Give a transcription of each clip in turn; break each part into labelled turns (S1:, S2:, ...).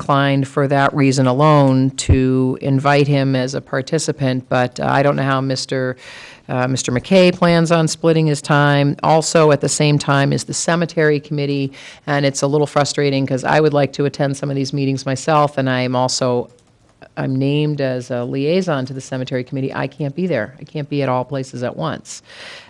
S1: inclined for that reason alone to invite him as a participant, but uh, I don't know how Mr. uh, Mr. McKay plans on splitting his time. Also, at the same time, is the Cemetery Committee, and it's a little frustrating because I would like to attend some of these meetings myself, and I am also, I'm named as a liaison to the Cemetery Committee. I can't be there. I can't be at all places at once.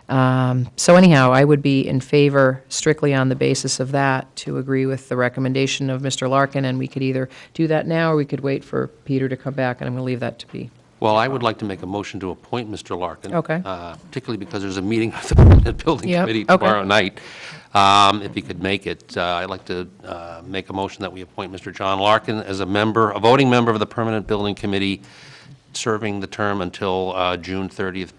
S1: Um, So anyhow, I would be in favor strictly on the basis of that to agree with the recommendation of Mr. Larkin, and we could either do that now or we could wait for Peter to come back, and I'm going to leave that to be.
S2: Well, I would like to make a motion to appoint Mr. Larkin.
S1: Okay.
S2: uh, Particularly because there's a meeting of the permanent building
S1: Yep,
S2: committee
S1: okay.
S2: tomorrow night. Um, If he could make it, uh, I'd like to uh, make a motion that we appoint Mr. John Larkin as a member, a voting member of the permanent building committee, serving the term until uh, June 30th,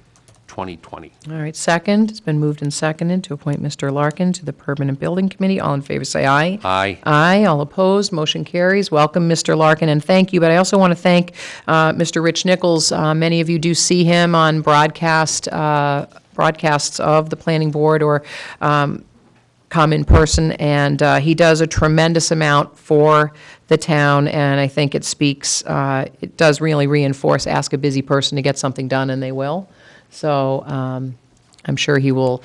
S2: 2020.
S1: All right, second, it's been moved and seconded to appoint Mr. Larkin to the Permanent Building Committee. All in favor, say aye.
S2: Aye.
S1: Aye, all opposed, motion carries. Welcome, Mr. Larkin, and thank you. But I also want to thank uh, Mr. Rich Nichols. Uh, Many of you do see him on broadcast, uh, broadcasts of the planning board or um, come in person, and uh, he does a tremendous amount for the town, and I think it speaks, uh, it does really reinforce, ask a busy person to get something done, and they will. So um, I'm sure he will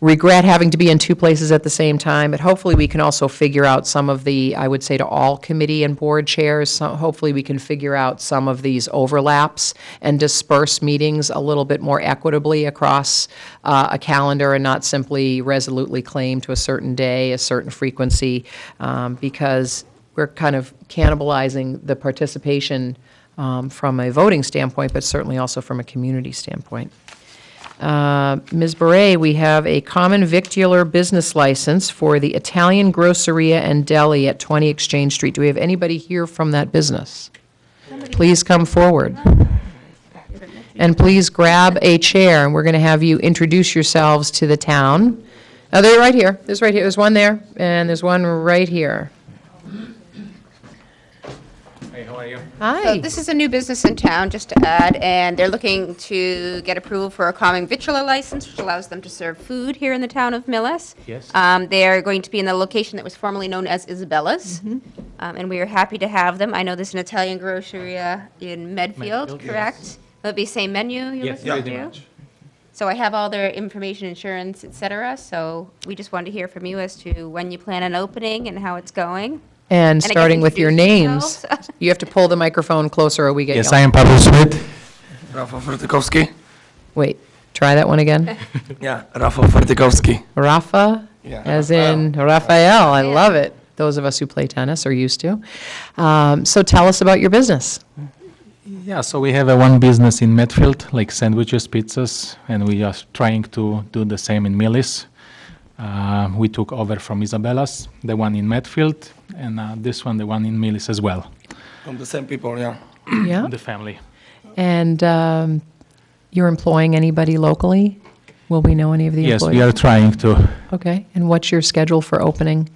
S1: regret having to be in two places at the same time, but hopefully we can also figure out some of the, I would say to all committee and board chairs, so hopefully we can figure out some of these overlaps and disperse meetings a little bit more equitably across uh, a calendar and not simply resolutely claim to a certain day, a certain frequency, um, because we're kind of cannibalizing the participation um, from a voting standpoint, but certainly also from a community standpoint. Uh, Ms. Beret, we have a common victular business license for the Italian Groceria and Deli at 20 Exchange Street. Do we have anybody here from that business? Please come forward. And please grab a chair, and we're going to have you introduce yourselves to the town. Oh, they're right here. There's right here, there's one there, and there's one right here.
S3: So
S1: Hi.
S3: this is a new business in town, just to add, and they're looking to get approval for a common vitrula license, which allows them to serve food here in the town of Millis.
S2: Yes.
S3: Um, They are going to be in the location that was formerly known as Isabella's, Um, and we are happy to have them. I know there's an Italian grocery uh, in Medfield, correct? It'll be same menu you're
S4: Yes,
S3: looking to
S4: pretty
S3: do?
S4: much.
S3: So I have all their information, insurance, et cetera, so we just wanted to hear from you as to when you plan on opening and how it's going.
S1: And
S3: I get
S1: starting with your
S3: introduce
S1: names,
S3: yourselves?
S1: you have to pull the microphone closer or we get
S4: Yes,
S1: yelled.
S4: I am Pavel Schmidt.
S5: Rafał Fertykowski?
S1: Wait, try that one again.
S5: Yeah, Rafał Fertykowski.
S1: Rafa,
S5: Yeah.
S1: as in Raphael. I love it. Those of us who play tennis are used to. Um, so tell us about your business.
S4: Yeah, so we have a one business in Medfield, like sandwiches, pizzas, and we are trying to do the same in Millis. Uh, we took over from Isabella's, the one in Medfield, and uh, this one, the one in Millis as well,
S5: From the same people, yeah.
S1: yeah.
S4: the family.
S1: And um, you're employing anybody locally? Will we know any of the
S4: Yes,
S1: employees?
S4: we are trying to.
S1: Okay. And what's your schedule for opening?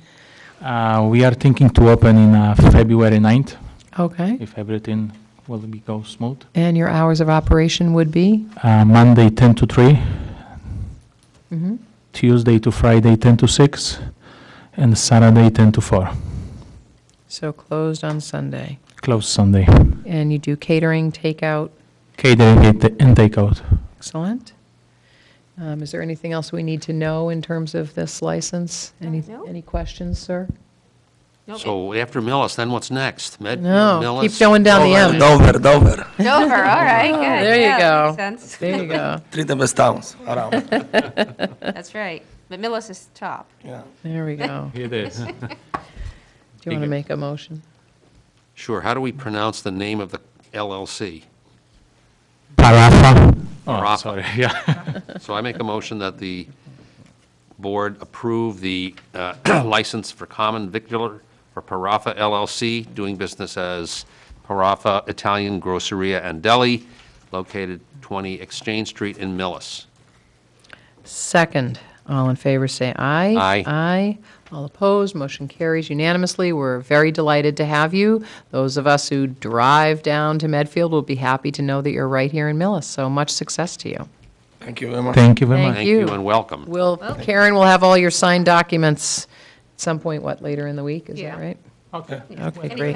S4: Uh, we are thinking to open in uh, February 9th,
S1: Okay.
S4: if everything will be go smooth.
S1: And your hours of operation would be?
S4: Uh, Monday 10 to 3, Mm-hmm. Tuesday to Friday 10 to 6, and Saturday 10 to 4.
S1: So closed on Sunday.
S4: Close Sunday.
S1: And you do catering, takeout?
S4: Catering and ta- and takeout.
S1: Excellent. Um, Is there anything else we need to know in terms of this license? Any
S3: No.
S1: Any questions, sir?
S2: So after Millis, then what's next? Medfield,
S1: No, keep
S2: Millis?
S1: going down the M.
S5: Dover, Dover.
S3: Dover, all right, good.
S1: there you
S3: yeah, that makes
S1: go.
S3: sense.
S1: There you go.
S5: Three the best towns around.
S3: That's right. But Millis is top.
S5: Yeah.
S1: There we go. Do
S4: It is.
S1: you want to make a motion?
S2: Sure, how do we pronounce the name of the LLC?
S4: Parafa. Oh,
S2: Parafa.
S4: sorry, yeah.
S2: So I make a motion that the board approve the uh, license for common victular for Parafa LLC, doing business as Parafa Italian Groceria and Deli, located 20 Exchange Street in Millis.
S1: Second, all in favor, say aye.
S2: Aye.
S1: Aye. All opposed, motion carries unanimously. We're very delighted to have you. Those of us who drive down to Medfield will be happy to know that you're right here in Millis, so much success to you.
S5: Thank you very much.
S4: Thank you very
S1: Thank
S4: much.
S2: Thank you
S1: you.
S2: and welcome.
S1: Will, Karen will have all your signed documents at some point, what, later in the week, is
S3: Yeah.
S1: that right?
S4: Okay.
S1: Okay,
S3: Any
S1: great.